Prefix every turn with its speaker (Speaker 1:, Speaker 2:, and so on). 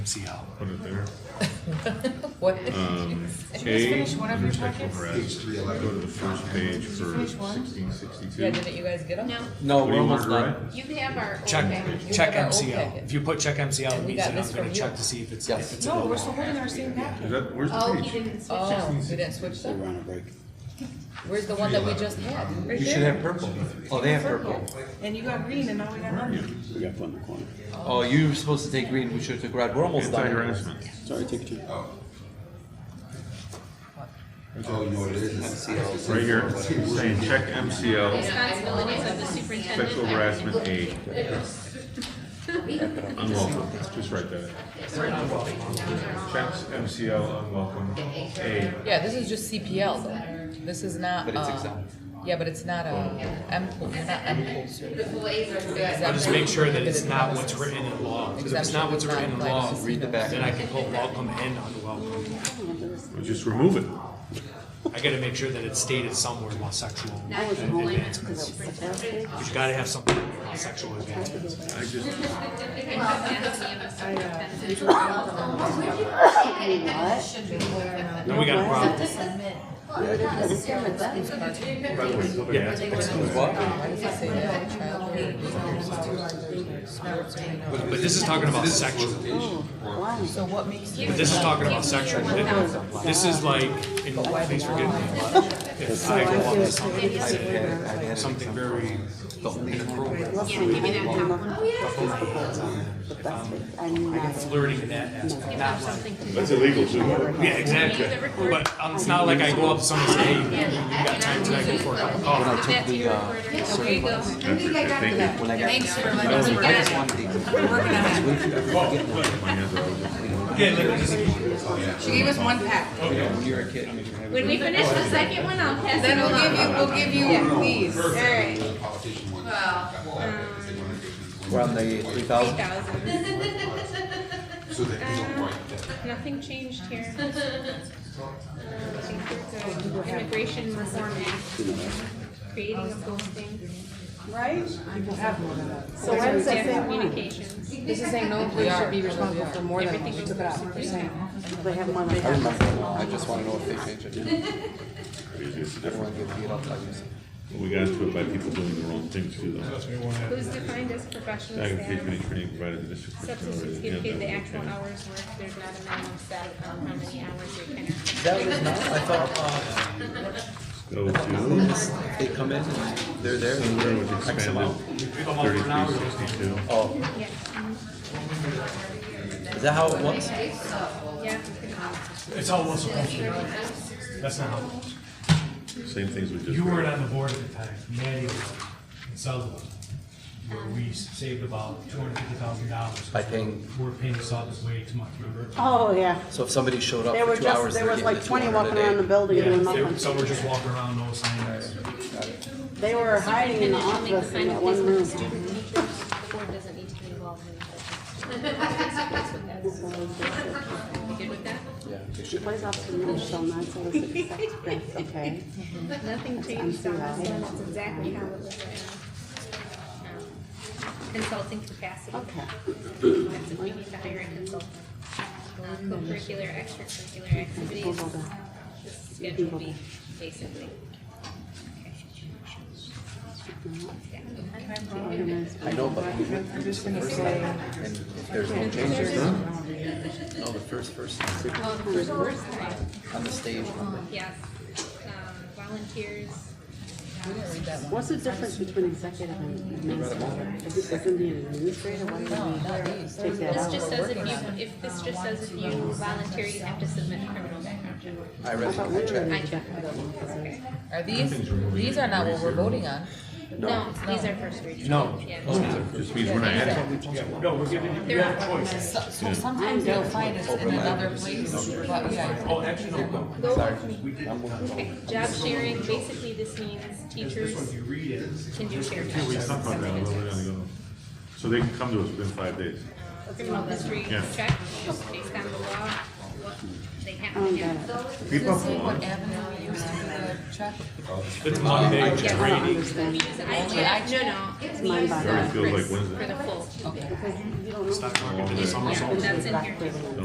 Speaker 1: See how.
Speaker 2: Put it there.
Speaker 3: What did you
Speaker 2: Um,
Speaker 3: say?
Speaker 2: A,
Speaker 4: finish one of your
Speaker 2: intersection
Speaker 4: packets?
Speaker 1: Page
Speaker 2: rest.
Speaker 1: three
Speaker 2: Go
Speaker 1: eleven.
Speaker 2: to the first page for
Speaker 4: finish one?
Speaker 2: sixteen
Speaker 3: Yeah,
Speaker 1: Uh,
Speaker 2: sixty-two.
Speaker 3: didn't you guys get them?
Speaker 4: No,
Speaker 5: No,
Speaker 2: What do
Speaker 5: we're
Speaker 2: you
Speaker 5: almost
Speaker 2: want,
Speaker 5: done.
Speaker 2: right?
Speaker 4: you have our old
Speaker 1: Check,
Speaker 4: package.
Speaker 1: check
Speaker 3: You have our old
Speaker 1: MCL.
Speaker 3: packet.
Speaker 1: If you put check MCL, it
Speaker 3: And we
Speaker 1: means
Speaker 3: got
Speaker 1: that
Speaker 3: this
Speaker 1: I'm gonna
Speaker 3: from
Speaker 1: check
Speaker 3: you.
Speaker 1: to see if it's,
Speaker 5: Yes.
Speaker 1: if it's
Speaker 4: No,
Speaker 1: available.
Speaker 4: we're still holding our same
Speaker 2: Is
Speaker 4: packet.
Speaker 2: that, where's
Speaker 4: Oh,
Speaker 2: the
Speaker 4: he
Speaker 2: page?
Speaker 4: didn't switch
Speaker 3: Oh,
Speaker 4: them.
Speaker 3: we didn't switch
Speaker 1: We're
Speaker 3: them?
Speaker 1: on a break.
Speaker 3: Where's the one that we just had? Right
Speaker 5: You should
Speaker 3: there?
Speaker 5: have purple. Oh, they have purple.
Speaker 4: And you got green and now we got
Speaker 2: Where are
Speaker 4: orange.
Speaker 2: you?
Speaker 1: We got one in the corner.
Speaker 5: Oh, you were supposed to take green, we should have took red. We're almost done.
Speaker 2: Anti-harassment.
Speaker 1: Sorry, take your time.
Speaker 6: Oh, you know what it is? It's-
Speaker 2: Right here, it's saying check MCL,
Speaker 4: Responsibilities of the superintendent.
Speaker 2: sexual harassment A. Unwelcome, just write that. Checks MCL unwelcome, A.
Speaker 3: Yeah, this is just CPL though. This is not,
Speaker 5: But it's
Speaker 3: uh,
Speaker 5: exempt.
Speaker 3: yeah, but it's not a M pool, it's not M pool
Speaker 4: The boys are good.
Speaker 1: I'll just make sure that it's not what's written in law, because if it's not what's written in law,
Speaker 5: Read the back.
Speaker 1: then I can put welcome and unwelcome.
Speaker 2: Well, Just remove it.
Speaker 1: I gotta make sure that it's stated somewhere about sexual advancements. But you gotta have something about sexual advancements.
Speaker 2: I just,
Speaker 1: Then we got a problem.
Speaker 2: by the way, somebody
Speaker 1: Yeah.
Speaker 2: asked.
Speaker 3: Why does it say that? Child or-
Speaker 1: But this is talking about sexual.
Speaker 3: So what makes
Speaker 1: But this is talking about sexual. This is like, and thanks for getting me. but If I go up to something, something very inappropriate, flirting in that aspect, not like.
Speaker 2: That's illegal, too.
Speaker 1: Yeah, exactly. But um, it's not like I go up to someone and say, hey, you got time tonight go for a cup of
Speaker 5: I
Speaker 1: coffee.
Speaker 5: took the, uh,
Speaker 4: There you go.
Speaker 2: That's it, thank you.
Speaker 5: when I got.
Speaker 4: Thanks for letting us work
Speaker 5: I just
Speaker 4: on
Speaker 5: wanted the,
Speaker 2: My hands are always-
Speaker 1: Yeah, like,
Speaker 4: it. She gave us one pack.
Speaker 5: when you're a kid.
Speaker 4: When we finish the second one, I'll pass it along. Then we'll give you, we'll give you these. All right. Well,
Speaker 5: We're on the three thousand.
Speaker 6: So that you don't write that.
Speaker 7: Nothing changed here. Um, I think we're good. Immigration Reform Act, creating a posting.
Speaker 8: Right? People have more than that. So why does
Speaker 7: Dear
Speaker 8: that say one?
Speaker 7: communications.
Speaker 8: This is saying no employee should be responsible for more than one, we took it out, we're saying. They have more
Speaker 5: I
Speaker 8: than
Speaker 5: remember, I just wanna know if they changed it.
Speaker 2: It's different.
Speaker 5: Everyone gets beat up like this.
Speaker 2: We got into it by people doing the wrong things, too, though.
Speaker 7: Who's defined as professional
Speaker 2: Second page, any
Speaker 7: staff?
Speaker 2: training provided to the district.
Speaker 7: Substitutes get paid the actual hours worked. There's not a minimum set of um, how many hours they can.
Speaker 5: That was not, I thought,
Speaker 2: Go to.
Speaker 5: uh, they come in and they're there.
Speaker 2: Somewhere was expanded, thirty-three sixty-two.
Speaker 5: Oh,
Speaker 7: Yeah, mhm,
Speaker 5: is that how it was?
Speaker 7: yeah.
Speaker 1: it's all what's supposed to be. That's not how it works.
Speaker 2: Same things we just.
Speaker 1: You weren't
Speaker 2: read.
Speaker 1: on the board at the time, Maddie was, and Sutherland, where we saved about two hundred fifty thousand dollars.
Speaker 5: By paying-
Speaker 1: We're paying Sutherland way too much, remember?
Speaker 8: Oh, yeah.
Speaker 5: So if somebody showed up
Speaker 8: There
Speaker 5: for
Speaker 8: were
Speaker 5: two hours,
Speaker 8: just, there
Speaker 5: they're
Speaker 8: was
Speaker 5: getting
Speaker 8: like
Speaker 5: the
Speaker 8: twenty
Speaker 5: 200 a
Speaker 8: walking
Speaker 5: day.
Speaker 8: around the building
Speaker 1: Yeah,
Speaker 8: doing
Speaker 1: they-
Speaker 8: nothing.
Speaker 1: some were just walking around, no signs.
Speaker 8: They were hiding in the
Speaker 7: Only
Speaker 8: office in
Speaker 7: defined
Speaker 8: that
Speaker 7: if
Speaker 8: one
Speaker 7: this
Speaker 8: room.
Speaker 7: was student teachers. The board doesn't need to be involved in that. You good with that?
Speaker 8: She plays off the middle, so not so it's accepted, that's okay.
Speaker 7: Nothing changed on this one, it's exactly how it was written. Um, Consulting capacity,
Speaker 8: Okay.
Speaker 7: that's if we need to hire a consultant. Uh, Co-curricular, extracurricular activities,
Speaker 8: We'll go back.
Speaker 7: this schedule B, basically.
Speaker 5: I know, but we went through this the first time, and if there's no changes, no, the first person
Speaker 7: Well, the first time,
Speaker 5: on the stage.
Speaker 7: yes, um, volunteers,
Speaker 3: We didn't read that one.
Speaker 8: What's the difference between executive and administrative? Is it, isn't the administrator one
Speaker 3: Not
Speaker 8: that
Speaker 3: these.
Speaker 8: we take that
Speaker 7: this
Speaker 8: out?
Speaker 7: just says if you, if this just says if you volunteer, you have to submit a criminal background check.
Speaker 5: I
Speaker 8: I
Speaker 5: read
Speaker 8: thought
Speaker 5: it,
Speaker 8: we
Speaker 5: I
Speaker 8: were
Speaker 5: checked.
Speaker 8: in
Speaker 7: I checked.
Speaker 8: executive one, 'cause there's-
Speaker 3: Are these, these are not what we're voting on.
Speaker 7: No, these are first reading.
Speaker 1: No.
Speaker 7: Yeah.
Speaker 2: Just means we're not adding.
Speaker 1: No, we're giving you, you have a choice.
Speaker 3: So so sometimes they'll find us in another place, but yeah.
Speaker 1: Oh, actually, no.
Speaker 5: Sorry.
Speaker 7: Okay, job sharing, basically this means teachers
Speaker 1: If you read it,
Speaker 7: can do shared
Speaker 2: Yeah, we
Speaker 7: jobs.
Speaker 2: talked about that a little bit ago. So they can come to us within five days.
Speaker 7: Criminal history
Speaker 2: Yeah.
Speaker 7: check, based on the law, what they they have to do.
Speaker 3: Let's see what avenue we used to uh, do the check.
Speaker 1: It's Monday, it's
Speaker 8: I don't
Speaker 1: rainy.
Speaker 8: understand.
Speaker 7: I, no, no, it's
Speaker 8: mind boggling.
Speaker 2: It feels like Wednesday.
Speaker 7: for the full,
Speaker 8: Because you- you don't know.
Speaker 1: Stock market did a somersault.
Speaker 7: that's in here.